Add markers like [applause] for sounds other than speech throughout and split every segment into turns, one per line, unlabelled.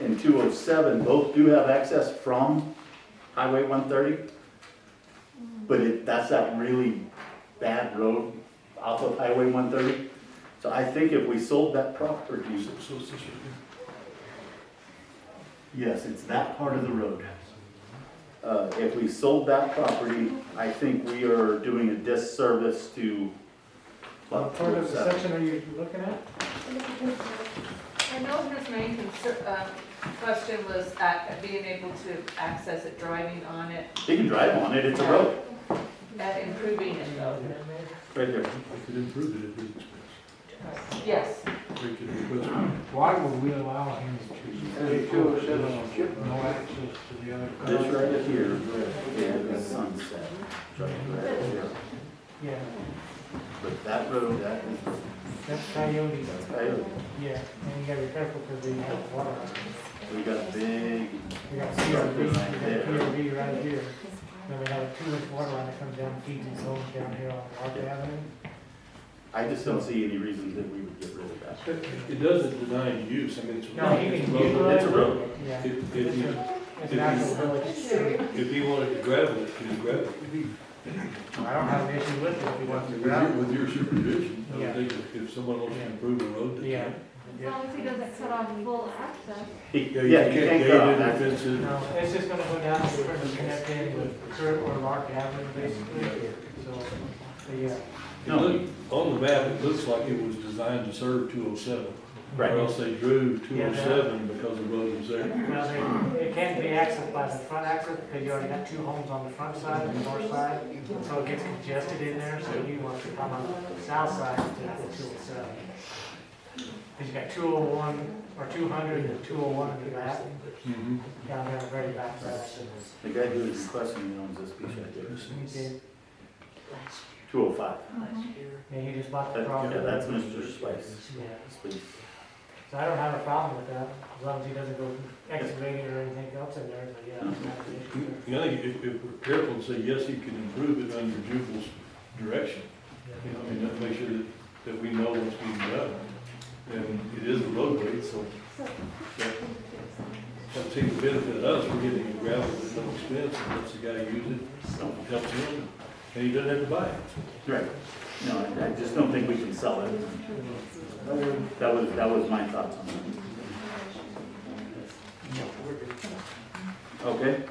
and two oh seven both do have access from Highway one thirty. But it, that's that really bad road off of Highway one thirty. So I think if we sold that property,
So it's this right here.
yes, it's that part of the road. Uh, if we sold that property, I think we are doing a disservice to.
What part of the section are you looking at?
And Mildred's main concern, um, question was ac being able to access it, driving on it,
They can drive on it, it's a road,
and improving it though.
right there.
We could improve it at his expense.
Yes,
We could request,
Why would we allow him to
And two oh seven Chip
no access to the other?
This
Uh,
cars?
right here, and the sunset, right there.
Yeah,
But that road, that is,
that's coyote.
coyote.
Yeah, and you gotta be careful because they have water.
we got a big,
We got CRV, we got
Right there.
PRV right here. Then we have a two inch water line that comes down, feeds its own down here on Park Avenue.
I just don't see any reason that we would get rid of that.
it doesn't deny use, I mean, it's.
No, he can
It's
utilize
a
it.
road.
Yeah.
If, if
It's
he,
a- it's an actual village street.
if he wanted to gravel it, he could gravel it.
I don't have an issue with it if he wants to
With your-
grab it.
With your supervision, I
Yeah.
would think if- if someone wants to improve a road. they
Yeah.
can.
Yeah.
long as he doesn't cut off full access.
He-
Yeah,
Yeah,
you can't
cut
gate
off
it
access.
if it's a.
No, it's just gonna go down to where it's connected with Kurt or Mark Avenue, basically, so, but yeah.
It
No.
look- On the map, it looks like it was designed to serve two oh seven.
Right.
Or else they drew two
Yeah,
oh
that-
seven because the road was there.
Now, they- it can't be accessed by the front access, because you already got two homes on the front side and the north side, so it gets congested in there, so you want to come on the south side to the two oh seven. Because you got two oh one, or two hundred and two oh one in the back,
Mhm.
down there, very back side.
The guy who is requesting it owns this piece right there,
You did-
two oh five.
Yeah, you just bought the property.
Yeah, that's Mr. Spice.
Yeah.
Please.
So I don't have a problem with that, as long as he doesn't go excavating or anything else in there, but yeah. I'm not an issue there.
You know, if, if we're careful and say, yes, you can improve it under Jubal's direction, you know, I mean, that- make sure that, that we know what's being done. And it is a roadway, so that seems to benefit us, we're getting a gravel at no expense, and lets the guy use it, helps him, and he doesn't have to buy it.
Right. No, I- I just don't think we can sell it. That was, that was my thoughts on that. Okay?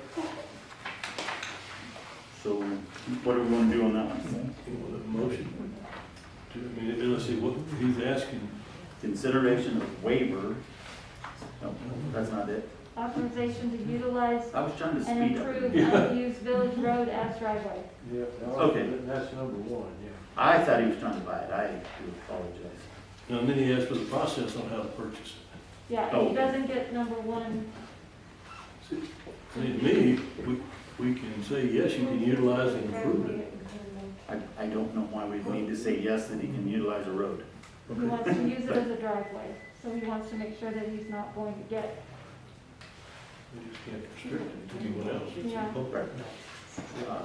So what do we want to do on that one?
You know, the motion, to, I mean, unless he, what, he's asking,
Consideration of waiver. No, that's not it.
Authorization to utilize
I was trying to
and
speed up.
improve unused village road as driveway.
Yeah,
Okay.
that's number one, yeah.
I thought he was trying to buy it. I do apologize.
you know, and then he asked for the process on how to purchase it.
Yeah,
Oh.
if he doesn't get number one,
I mean, to me, we, we can say, yes, you can utilize and improve it.
I, I don't know why we need to say yes that he can utilize a road.
he wants to use it as a driveway, so he wants to make sure that he's not going to get
We just can't restrict it to anyone else.
Yeah.
Uh,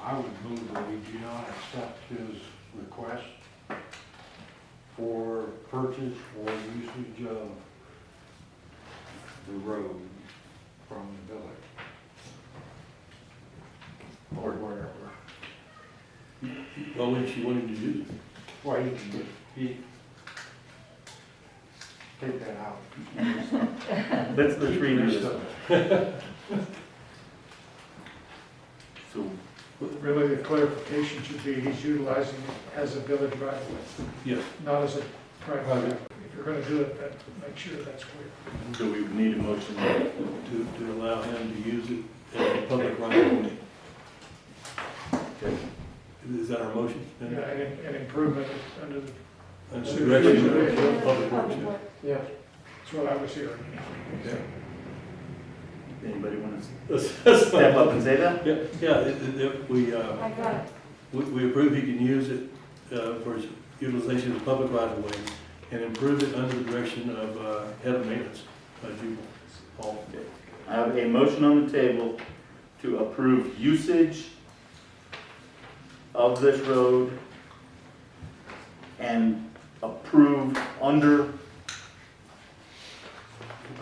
I would move that we do not accept his request for purchase or usage of the road from the village. Or wherever.
Well, when she wanted to use it.
Well, you can, he, take that out.
Let's, let's redo this. [laughs] So,
Really, the clarification should be he's utilizing it as a village right of way,
Yes.
not as a private right of way. If you're gonna do it, that- make sure that's clear.
so we would need a motion. there.
To, to allow him to use it as a public right of way. Is that our motion?
You know, And, and improvement under, the-
And so direction of public works,
public
yeah.
work.
Yeah.
that's what I was hearing.
Anybody want to
That's- that's
step
fine.
up and say that?
Yeah, yeah, it- it- it- we, uh,
I got it.
we, we approve he can use it, uh, for his utilization as a public right of way and improve it under the direction of, uh, head of maintenance, uh, Jubal. Paul.
I have a motion on the table to approve usage of this road and approve under